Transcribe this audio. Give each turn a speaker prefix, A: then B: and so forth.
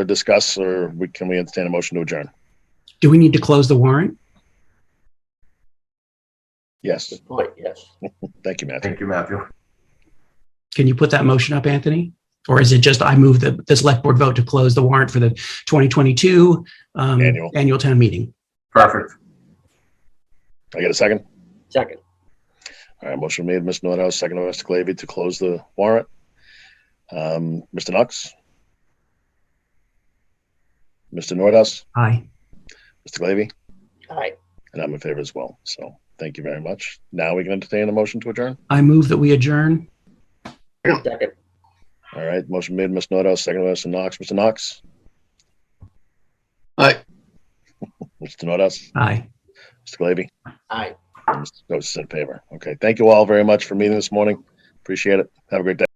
A: to discuss, or we, can we entertain a motion to adjourn?
B: Do we need to close the warrant?
A: Yes,
C: Point, yes.
A: thank you, Matthew.
D: Thank you, Matthew.
B: Can you put that motion up, Anthony? Or is it just I move the, the select board vote to close the warrant for the 2022 um,
A: Annual.
B: annual town meeting?
D: Perfect.
A: I get a second?
C: Second,
A: All right, motion made, Mr. Nordhaus, second by Mr. Glavy to close the warrant. Um, Mr. Knox? Mr. Nordhaus,
B: Aye.
A: Mr. Glavy,
C: aye,
A: and I'm in favor as well. So thank you very much. Now we can entertain a motion to adjourn.
B: I move that we adjourn.
C: second,
A: All right, motion made, Mr. Nordhaus, second by Mr. Knox. Mr. Knox?
D: Aye.
A: Mr. Nordhaus,
B: Aye.
A: Mr. Glavy,
C: aye.
A: and Mr. Goetz is in favor. Okay, thank you all very much for meeting this morning. Appreciate it. Have a great day.